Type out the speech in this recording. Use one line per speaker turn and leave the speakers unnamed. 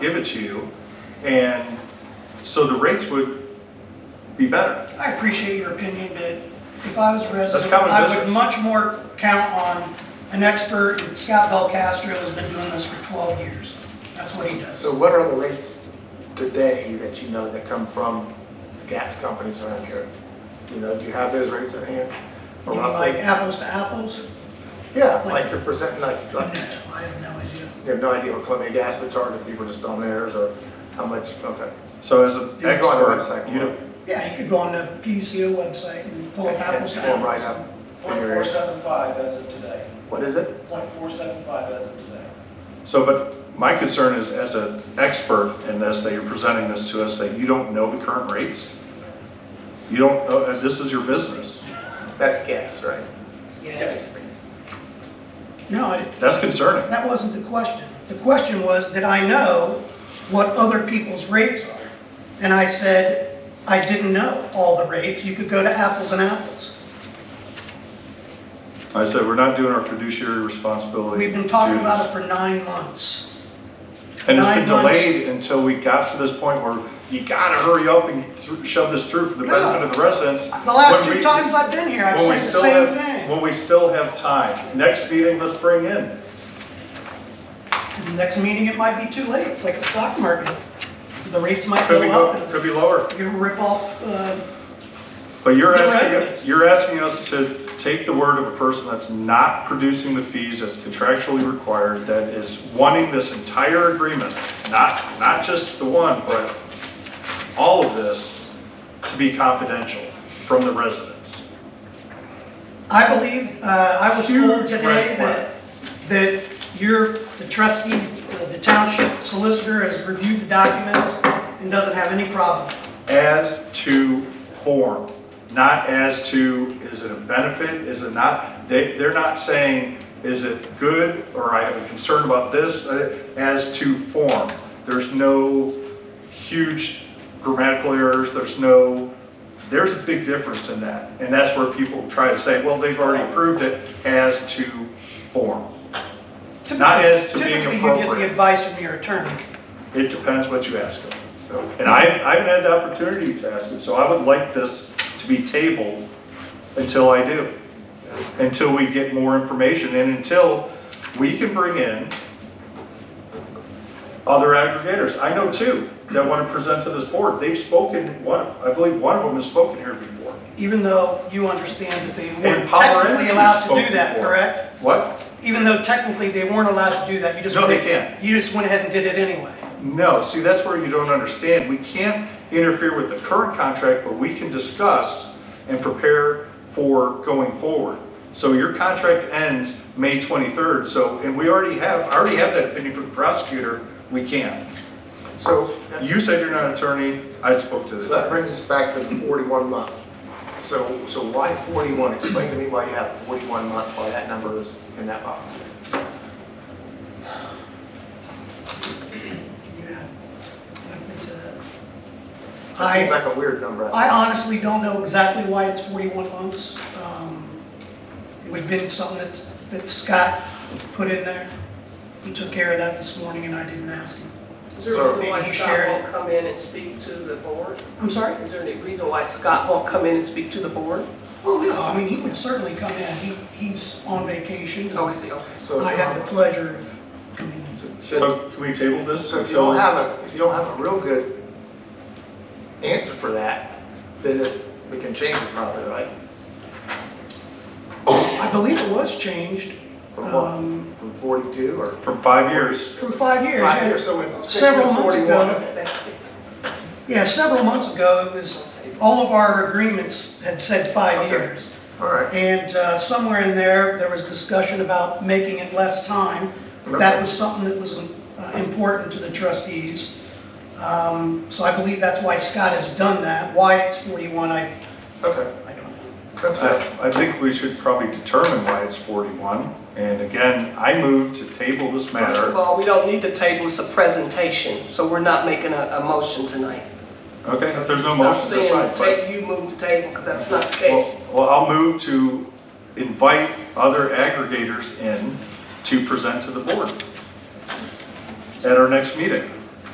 give it to you, and so the rates would be better.
I appreciate your opinion, but if I was a
That's
resident,
common
I would
business.
much more count on an expert, and Scott Bell Castro has been doing this for 12 years. That's what he does.
So what are the rates today that you know that come from the gas companies around here? You know, do you have those rates at hand?
You
Or
know, Like
roughly?
apples to apples?
Yeah, like your percent, like,
No, I
like,
have no idea.
you have no idea what Columbia Gas would charge if you were just on theirs or how much, okay.
So as an
You can go on the
expert,
website.
you know,
Yeah, you could go on the PUCO website and pull up apples to
And pull right
apples.
up in your area.
0.475 as of today,
What is it?
0.475 as of today.
so, but my concern is as an expert in this, that you're presenting this to us, that you don't know the current rates. You don't, know- and this is your business.
That's gas, right?
Yes.
No, I-
That's concerning.
that wasn't the question. The question was, did I know what other people's rates are? And I said, I didn't know all the rates. You could go to apples and apples.
I said, we're not doing our fiduciary responsibility.
We've been talking
duties.
about it for nine months.
And it's been
nine months.
delayed until we got to this point where you gotta hurry up and th- shove this through for the benefit of the residents.
The last
when
two
we-
times I've been here, I've
when we
said the
still
same
have-
thing.
When we still have time. Next meeting, let's bring in.
The Next meeting, it might be too late. It's like the stock market. The rates might
Could
go
be,
up.
go-
and
could be lower.
You're gonna rip off, uh,
But you're
The
asking,
residents.
you're asking us to take the word of a person that's not producing the fees that's contractually required, that is wanting this entire agreement, not, not just the one, but all of this to be confidential from the residents.
I believe, uh, I was told
Huge red
today that, that your, the trustees, uh, the township solicitor has reviewed the documents and doesn't have any problem.
as to form, not as to, is it a benefit, is it not? They, they're not saying, is it good, or I have a concern about this, uh, as to form. There's no huge grammatical errors, there's no, there's a big difference in that. And that's where people try to say, well, they've already approved it as to form. Not as to being
Typically, you get the
appropriate.
advice from your attorney.
It depends what you ask them.
So
And I, I haven't had the opportunity to ask him, so I would like this to be tabled until I do. Until we get more information and until we can bring in other aggregators. I know two that want to present to this board. They've spoken, one, I believe one of them has spoken here before.
Even though you understand that they
And
weren't
Power
technically
Energy
allowed to
spoke
do that,
before.
correct?
What?
Even though technically they weren't allowed to do that, you just.
No, they
went-
can't.
You just went ahead and did it anyway.
No, see, that's where you don't understand. We can't interfere with the current contract, but we can discuss and prepare for going forward. So your contract ends May 23rd, so, and we already have, I already have that opinion from the prosecutor, we can't.
So
You said you're not an attorney, I spoke to
so
the
that
attorney.
brings us back to the 41 month. So, so why 41? Explain to me why you have 41 month, why that number is in that box.
You had-
That seems
I,
like a weird number.
I honestly don't know exactly why it's 41 months. Um, It would have been something that's, that Scott put in there. He took care of that this morning and I didn't ask him.
Is there a
Sir.
reason why
Maybe
Scott
share
won't
it.
come in and speak to the board?
I'm sorry?
Is there any reason why Scott won't come in and speak to the board?
Oh,
Well, no, I mean, he would certainly come in. He, he's on vacation.
Oh, is he, okay.
So if
I
you
had the
don't-
pleasure of coming in.
So
So can we table this
so if you
until,
don't have a, if you don't have a real good answer for that, then it- we can change it probably, right?
I believe it was changed
From
Um,
what? From 42 or?
from five years?
from five years.
Five
yeah.
years, so it's six
Several
and
months
41.
ago.
Okay.
Yeah, several months ago, it was, all of our agreements had said five
Okay.
years.
All right.
And uh, somewhere in there, there was discussion about making it less time. but That was something that was uh, important to the trustees. Um, So I believe that's why Scott has done that. Why it's 41, I,
Okay.
I don't know.
That's fair.
I I think we should probably determine why it's 41. And again, I move to table this
First of
matter.
all, we don't need the table, it's a presentation, so we're not making a, a motion tonight.
Okay, if there's no
Stop
motion, that's
saying
fine.
the
but-
ta- You move the table, because that's not the case.
Well, well, I'll move to invite other aggregators in to present to the board at our next meeting.